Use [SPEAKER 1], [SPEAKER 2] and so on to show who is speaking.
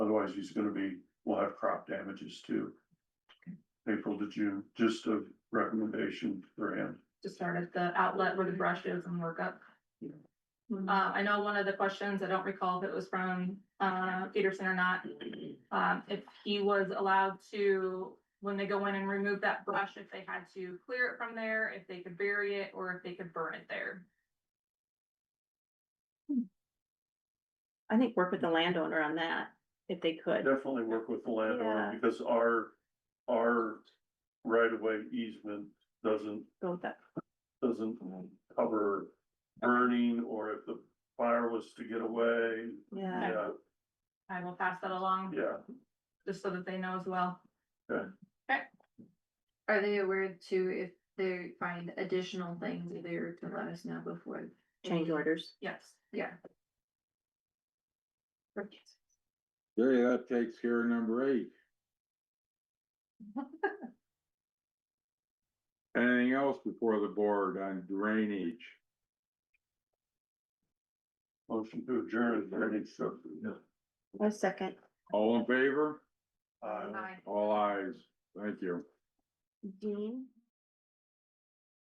[SPEAKER 1] otherwise he's gonna be, we'll have crop damages too. April to June, just a recommendation for him.
[SPEAKER 2] to start at the outlet where the brush is and work up. Uh, I know one of the questions, I don't recall if it was from, uh, Peterson or not, um, if he was allowed to, when they go in and remove that brush, if they had to clear it from there, if they could bury it, or if they could burn it there.
[SPEAKER 3] I think work with the landowner on that, if they could.
[SPEAKER 1] Definitely work with the landowner
[SPEAKER 3] Yeah.
[SPEAKER 1] because our, our right of way easement doesn't,
[SPEAKER 3] Go with that.
[SPEAKER 1] doesn't cover burning or if the fire was to get away.
[SPEAKER 3] Yeah,
[SPEAKER 1] Yeah,
[SPEAKER 2] I will pass that along,
[SPEAKER 1] yeah.
[SPEAKER 2] just so that they know as well.
[SPEAKER 4] Are they aware too, if they find additional things, they were to let us know before?
[SPEAKER 3] change
[SPEAKER 4] Mm-hmm.
[SPEAKER 3] orders.
[SPEAKER 2] Yes,
[SPEAKER 4] Yeah.
[SPEAKER 5] Okay, that takes care of number eight. Anything else before the board on drainage?
[SPEAKER 1] Motion to adjourn, burning stuff.
[SPEAKER 3] A second.
[SPEAKER 5] All in favor?
[SPEAKER 1] Uh,
[SPEAKER 4] Aye.
[SPEAKER 5] All eyes. Thank you.
[SPEAKER 3] Dean?